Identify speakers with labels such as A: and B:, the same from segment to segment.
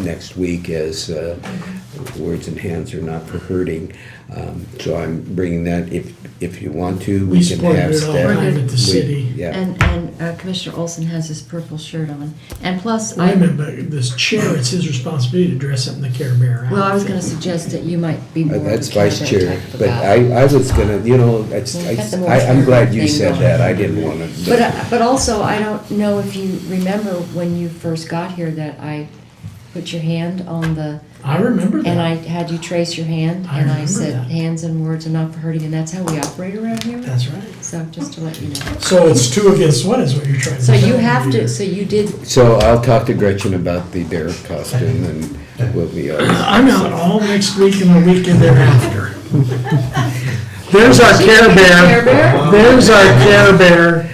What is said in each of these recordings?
A: next week as uh, words and hands are not for hurting. Um, So I'm bringing that, if, if you want to, we
B: We
A: can
B: supported
A: have
B: it all the
A: staff.
B: time at the
A: we-
B: city.
A: Yeah,
C: And, and uh, Commissioner Olson has his purple shirt on. And plus,
B: Wait a
C: I,
B: minute, but this chair, it's his responsibility to dress up in the Care Bear
C: well, I was
B: outfit.
C: gonna suggest that you might be more
A: Uh,
C: of a
A: that's vice
C: cabinet
A: chair,
C: type of
A: but
C: guy.
A: I, I was gonna, you know, it's-
C: Well, you've got the more
A: I, I'm glad you
C: thing
A: said
C: going.
A: that, I didn't wanna.
C: But, uh, but also, I don't know if you remember when you first got here that I put your hand on the,
B: I remember
C: and I
B: that.
C: had you trace your hand,
B: I
C: and I
B: remember
C: said,
B: that.
C: hands and words are not for hurting, and that's how we operate around here.
B: That's right.
C: So just to let you know.
B: So it's two against one is what you're trying to
C: So
B: say.
C: you have to, so you did,
A: So I'll talk to Gretchen about the bear costume and we'll be, all-
B: I'm out all next week and the weekend thereafter.
D: There's our Care
C: Care Bear?
D: Bear. There's our Care Bear.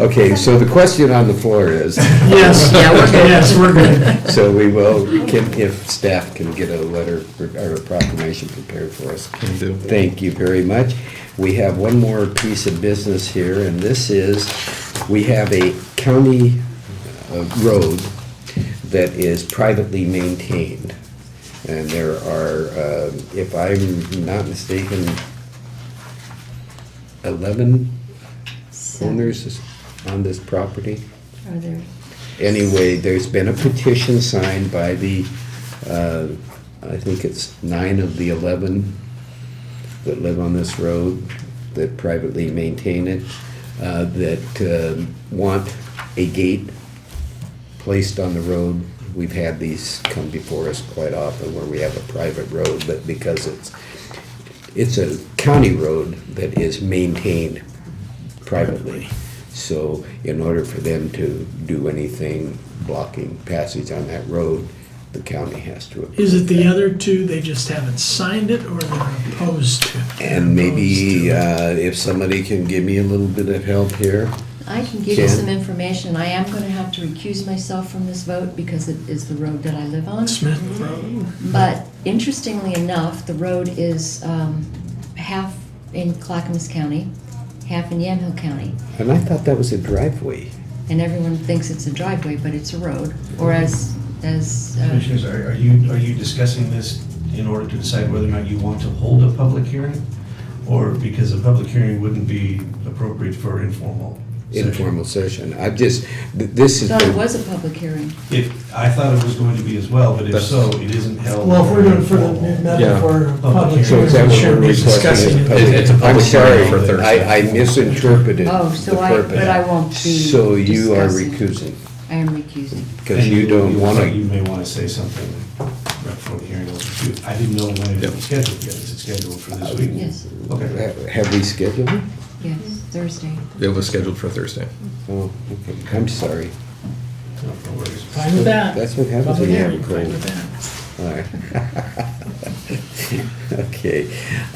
A: okay, so the question on the floor is,
B: Yes.
C: Yeah, we're good.
B: Yes, we're good.
A: so we will, can, if staff can get a letter or a proclamation prepared for us. Can do. Thank you very much. We have one more piece of business here, and this is, we have a county uh, road that is privately maintained. And there are, uh, if I'm not mistaken, eleven owners on this property.
C: are there,
A: Anyway, there's been a petition signed by the, uh, I think it's nine of the 11 that live on this road, that privately maintain it, uh, that um, want a gate placed on the road. We've had these come before us quite often where we have a private road, but because it's, it's a county road that is maintained privately. So in order for them to do anything blocking passage on that road, the county has to approve.
B: Is it the
A: that.
B: other two, they just haven't signed it or they're opposed to? it?
A: And maybe
B: Opposed to it.
A: uh, if somebody can give me a little bit of help here.
C: I can give you
A: Jan?
C: some information. I am gonna have to recuse myself from this vote because it is the road that I live on.
B: Smith Road.
C: But interestingly enough, the road is um, half in Clackamas County, half in Yamhill County.
A: And I thought that was a driveway.
C: And everyone thinks it's a driveway, but it's a road, or as, as, uh,
E: Commissioners, are are you, are you discussing this in order to decide whether or not you want to hold a public hearing? Or because a public hearing wouldn't be appropriate for informal session?
A: Informal session. I've just, th- this is.
C: thought it was a public hearing.
E: If, I thought it was going to be as well, but if
A: That's-
E: so, it isn't held.
B: Well, if we're doing for the
E: informal.
B: metaphor, public
E: Public
A: So
B: hearing,
A: is that
B: we
A: what we're
B: should be
A: requesting?
B: discussing
A: is
B: it.
A: public-
F: It's a public hearing
A: I'm
F: for
A: sorry,
F: Thursday.
A: I, I misinterpreted the
C: Oh,
A: purpose.
C: so I, but I won't be
A: So you are
C: discussing.
A: recusing,
C: I am recusing.
A: because you don't want
E: And You
A: to,
E: may want to say something right before the hearing opens too. I didn't know when it was scheduled yet. Is it scheduled for
A: Uh,
E: this week?
C: Yes,
E: Okay.
A: have we scheduled it?
C: yes, Thursday.
F: It was scheduled for Thursday.
A: Oh, okay, I'm sorry.
E: No, no worries.
B: Fine with that.
A: That's what happens when
B: Public
A: you
B: hearing,
A: have a
B: fine
A: cold.
B: with
A: All
B: that.
A: right. Okay,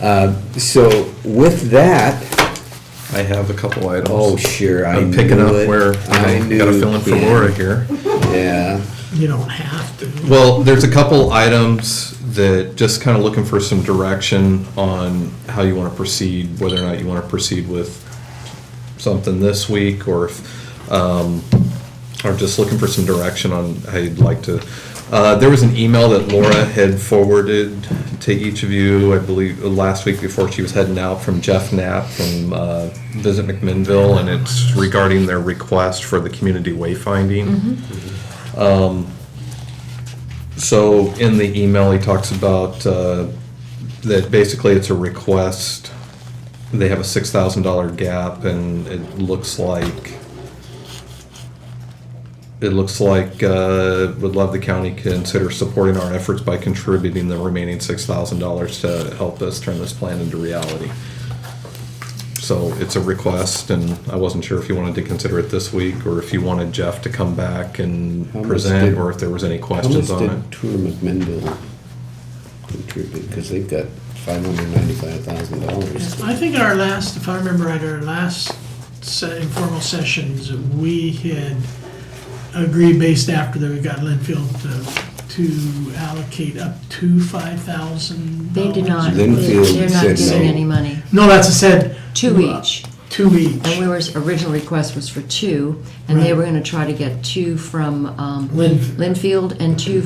A: Um, so with that,
F: I have a couple items.
A: oh, sure, I
F: I'm picking up
A: knew it.
F: where,
A: I
F: I gotta
A: knew-
F: fill in for
A: yeah,
F: Laura here.
A: Yeah,
B: You don't have to.
F: Well, there's a couple items that just kind of looking for some direction on how you want to proceed, whether or not you want to proceed with something this week or if, um, or just looking for some direction on how you'd like to. Uh, there was an email that Laura had forwarded to each of you, I believe, uh, last week before she was heading out from Jeff Knapp from, uh, Visit McMinnville, and it's regarding their request for the community wayfinding. So in the email, he talks about uh, that basically it's a request. They have a six thousand dollar gap, and it looks like it looks like uh, would love the county consider supporting our efforts by contributing the remaining six thousand dollars to help us turn this plan into reality. So it's a request, and I wasn't sure if you wanted to consider it this week or if you wanted Jeff to come back and
A: How much
F: present,
A: did-
F: or if there was any
A: how much
F: questions on it.
A: did Tour McMinnville contribute, because they've got five hundred ninety-five thousand dollars.
B: I think our last, if I remember right, our last se- informal sessions, we had agreed based after that we got Linfield to, to allocate up to five thousand.
C: They did not, they're
A: Linfield
C: they're
A: said
C: not giving
A: no.
C: any money.
B: No, that's a said.
C: Two each.
B: Two each.
C: And we were, original request was for two, and they
B: Right.
C: were gonna try to get two from um,
B: Linf-
C: Linfield and two